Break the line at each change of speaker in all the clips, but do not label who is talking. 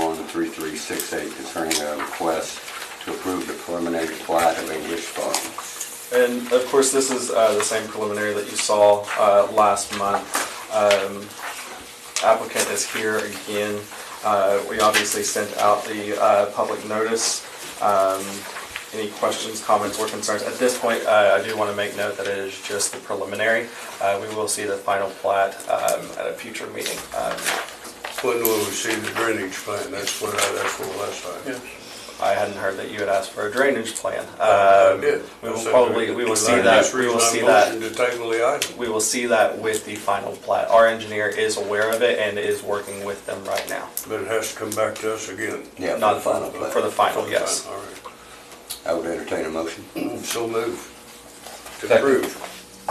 2015-2011-3368 concerning a request to approve the preliminary plat of English Farms.
And of course, this is uh, the same preliminary that you saw uh, last month. Um, Applicant is here again. Uh, We obviously sent out the uh, public notice. Um, Any questions, comments, or concerns? At this point, uh, I do want to make note that it is just the preliminary. Uh, We will see the final plat um, at a future meeting. Um,
When will we see the drainage plan? That's what I, that's what last time.
I hadn't heard that you had asked for a drainage plan.
Uh, I
Um,
did.
We
I
will
said
probably,
that-
we will
that's
see
the
that,
last
we will
reason I
see that.
motioned To table the item.
we will see that with the final plat. Our engineer is aware of it and is working with them right now.
But it has to come back to us again.
Yeah, for the
Not-
final
For
plat.
the final, yes.
All right.
I would entertain a motion.
So move. To
Second.
approve.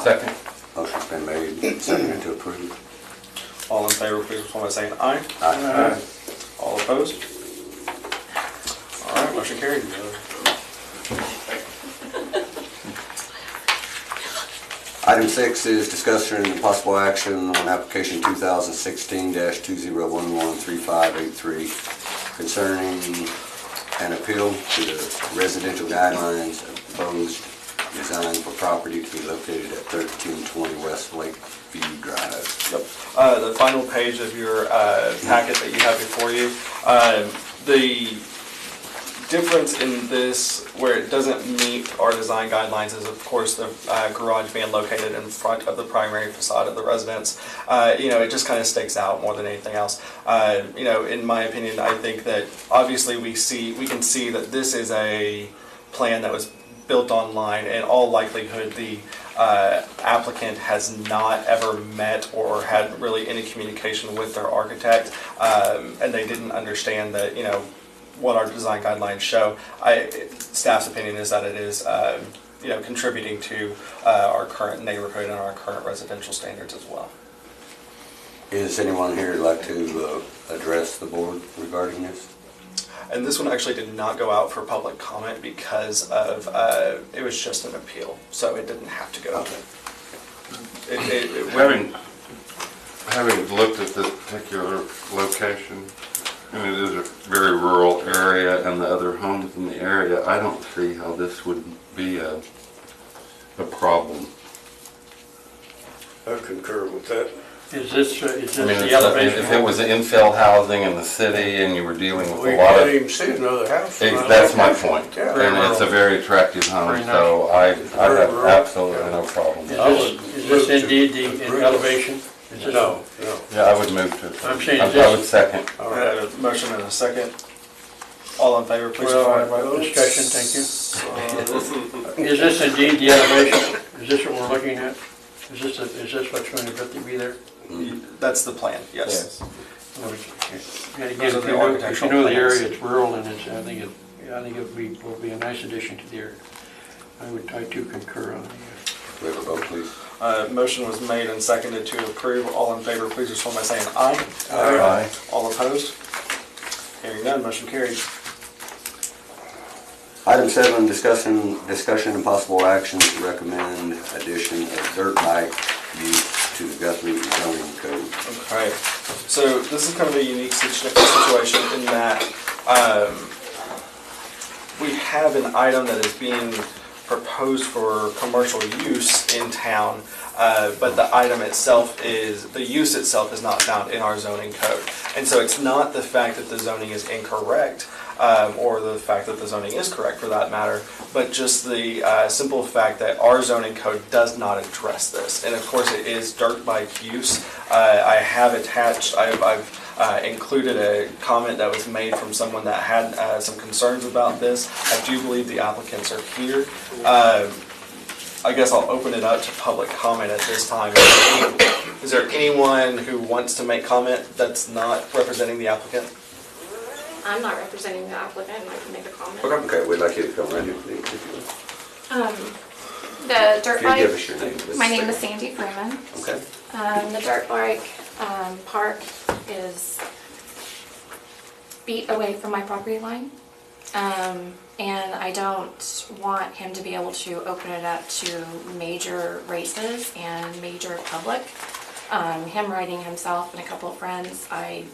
Second.
Motion's been made, seconded to approve.
All in favor, please respond by saying aye.
Aye.
All opposed? All right, motion carried.
Item six is discussion and possible action on application 2016-2011-3583 concerning an appeal to the residential guidelines of proposed design for property to be located at 1320 West Lakeview Drive.
Yep. Uh, The final page of your uh, packet that you have before you, um, the difference in this, where it doesn't meet our design guidelines, is of course the uh, garage being located in front of the primary facade of the residence. Uh, You know, it just kind of stakes out more than anything else. Uh, You know, in my opinion, I think that obviously we see, we can see that this is a plan that was built online. In all likelihood, the uh, applicant has not ever met or had really any communication with their architect, um, and they didn't understand that, you know, what our design guidelines show. I, staff's opinion is that it is, um, you know, contributing to uh, our current neighborhood and our current residential standards as well.
Is anyone here who'd like to uh, address the board regarding this?
And this one actually did not go out for public comment because of, uh, it was just an appeal, so it didn't have to go out. It- it- it-
Having, having looked at this particular location, and it is a very rural area and the other homes in the area, I don't see how this would be a, a problem.
I concur with that.
Is this, uh, is this
I mean,
the
if if it
elevation?
was infill housing in the city and you were dealing with
We
a lot
can't
of,
even see another house.
Ex- that's my point.
Yeah.
And it's a very attractive home,
Very nice.
so I, I have
Very rural,
absolutely
yeah.
no problem.
Is
Yeah,
I would
this, is
move
this
to
indeed the
approve.
elevation? Is this-
No, no.
I would move to.
I'm saying
I- I
just-
would second.
All
All right, I
right.
have a motion and a second. All in favor, please.
Well,
provide
well,
votes.
uh, discussion, thank
Uh,
Is this indeed the elevation? Is this what we're looking at? Is this, the- is this what's going to be there?
Uh, That's the plan, yes.
Or is- And again,
Those are
if
the
you know, if you
architectural
know the
plans.
area, it's rural and it's, I think it, I think it would be, will be a nice addition to the area. I would, I too concur on the, uh,
Do we have a vote, please?
Uh, Motion was made and seconded to approve. All in favor, please respond by saying aye.
Aye.
All opposed? Hearing none, motion carries.
Item seven, discussion, discussion and possible action to recommend addition of dirt bike use to the Guthrie zoning code.
Alright, so this is kind of a unique situ- situation in that um, we have an item that is being proposed for commercial use in town, uh, but the item itself is, the use itself is not found in our zoning code. And so it's not the fact that the zoning is incorrect, um, or the fact that the zoning is correct for that matter, but just the uh, simple fact that our zoning code does not address this. And of course, it is dirt bike use. Uh, I have attached, I've, I've uh, included a comment that was made from someone that had uh, some concerns about this. I do believe the applicants are here. Um, I guess I'll open it up to public comment at this time. Is there anyone who wants to make comment that's not representing the applicant?
I'm not representing the applicant, I can make a comment.
Okay, we'd like you to come right in, please. if you would.
Um, The
If
dirt
you give us
bike,
your name. Mrs.
my name is Sandy Freeman.
Okay.
Um, The dirt bike um, park is feet away from my property line. Um, And I don't want him to be able to open it up to major races and major public. Um, Him riding himself and a couple of friends, I